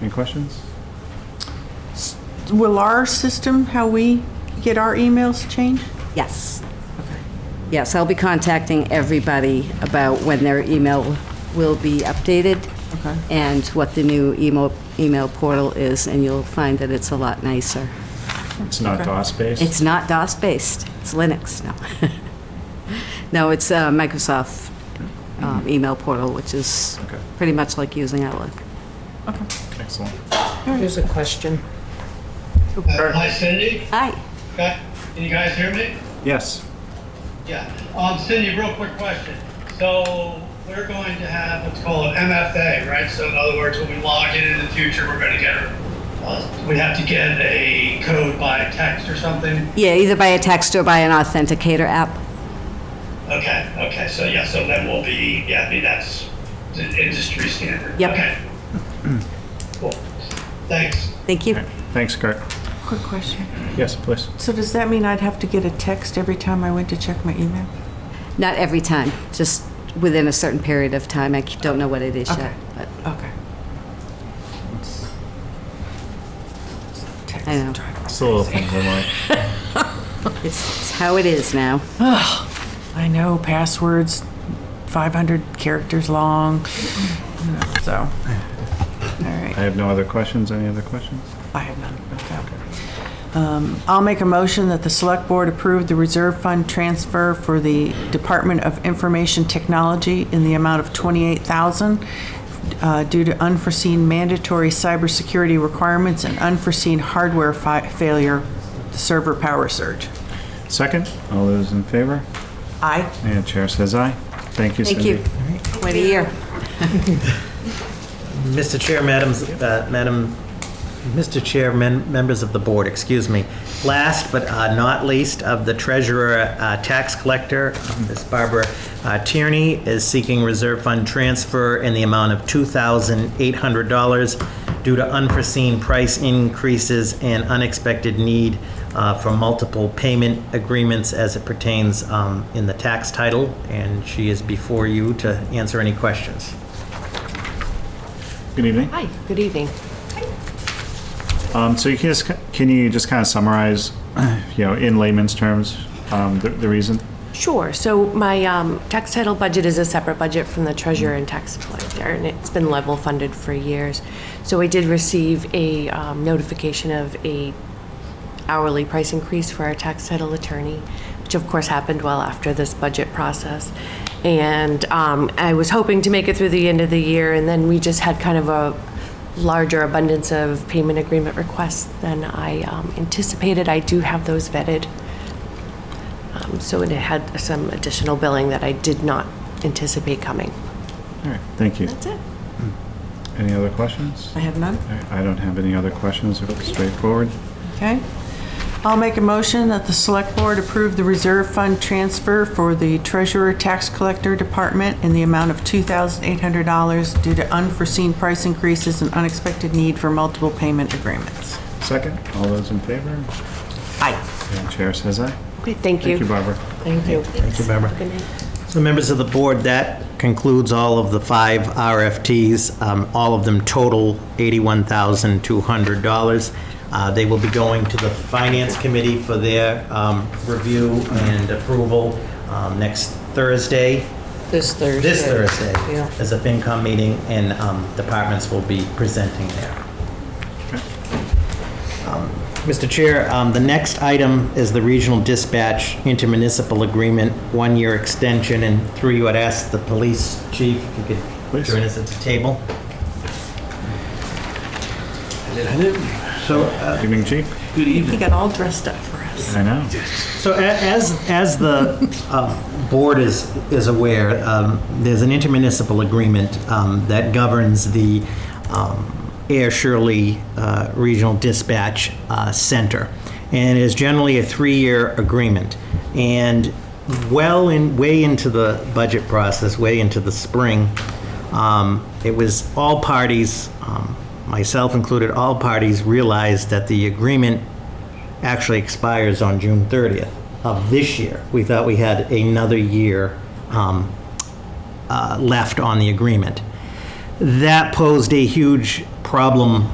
Any questions? Will our system, how we get our emails changed? Yes. Yes, I'll be contacting everybody about when their email will be updated Okay. and what the new email, email portal is, and you'll find that it's a lot nicer. It's not DOS-based? It's not DOS-based, it's Linux, no. No, it's uh, Microsoft um, email portal, which is Okay. pretty much like using Outlook. Excellent. Here's a question. Hi, Cindy. Hi. Guy- Can you guys hear me? Yes. Yeah. Um, Cindy, real quick question. So we're going to have what's called an MFA, right? So in other words, when we log in in the future, we're going to get, uh, we have to get a code by text or something? Yeah, either by a text or by an authenticator app. Okay, okay. So yeah, so that will be, yeah, I mean, that's the industry standard. Yep. Okay. Cool. Thanks. Thank you. Thanks, Kurt. Quick question. Yes, please. So does that mean I'd have to get a text every time I went to check my email? Not every time, just within a certain period of time. I don't know what it is yet, Okay. but Okay. I know. Text drive. It's a little things I'm like, it's it's how it is now. I know passwords, 500 characters long, you know, so. All right. I have no other questions. Any other questions? I have none. Um, I'll make a motion that the Select Board approve the reserve fund transfer for the Department of Information Technology in the amount of $28,000 uh, due to unforeseen mandatory cybersecurity requirements and unforeseen hardware fi- failure, server power surge. Second, all those in favor? Aye. And Chair says aye. Thank you, Thank Cindy. you. Wait a year. Mr. Chair, madams, uh, Madam, Mr. Chair, men- members of the board, excuse me. Last but uh, not least of the treasurer, uh, tax collector, Ms. Barbara uh, Tierney is seeking reserve fund transfer in the amount of $2,800 due to unforeseen price increases and unexpected need uh, for multiple payment agreements as it pertains um, in the tax title, and she is before you to answer any questions. Good evening. Hi, good evening. Um, So you can just, can you just kind of summarize, you know, in layman's terms, um, the the reason? Sure, so my um, tax title budget is a separate budget from the treasurer and tax collector, and it's been level funded for years. So I did receive a um, notification of a hourly price increase for our tax title attorney, which of course happened well after this budget process. And um, I was hoping to make it through the end of the year, and then we just had kind of a larger abundance of payment agreement requests than I um, anticipated. I do have those vetted. Um, So it had some additional billing that I did not anticipate coming. All right, thank you. That's it. Any other questions? I have none. All right, I don't have any other questions. It's straightforward. Okay. I'll make a motion that the Select Board approve the reserve fund transfer for the Treasurer Tax Collector Department in the amount of $2,800 due to unforeseen price increases and unexpected need for multiple payment agreements. Second, all those in favor? Aye. And Chair says aye. Okay, thank you. Thank you, Barbara. Thank you. Thank you, Barbara. So members of the board, that concludes all of the five RFTs. Um, All of them total $81,200. Uh, They will be going to the Finance Committee for their um, review and approval um, next Thursday. This Thursday. This Thursday Yeah. is a FinCom meeting, and um, departments will be presenting there. Mr. Chair, um, the next item is the Regional Dispatch Intermunicipal Agreement, one-year extension, and through you, I'd ask the police chief if you could Please. join us at the table. So, uh, Good evening, Chief. He got all dressed up for us. I know. So a- as, as the uh, board is, is aware, um, there's an intermunicipal agreement um, that governs the um, Air Shirley uh, Regional Dispatch uh, Center. And it is generally a three-year agreement. And well in, way into the budget process, way into the spring, um, it was all parties, um, myself included, all parties realized that the agreement actually expires on June 30th of this year. We thought we had another year um, uh, left on the agreement. That posed a huge problem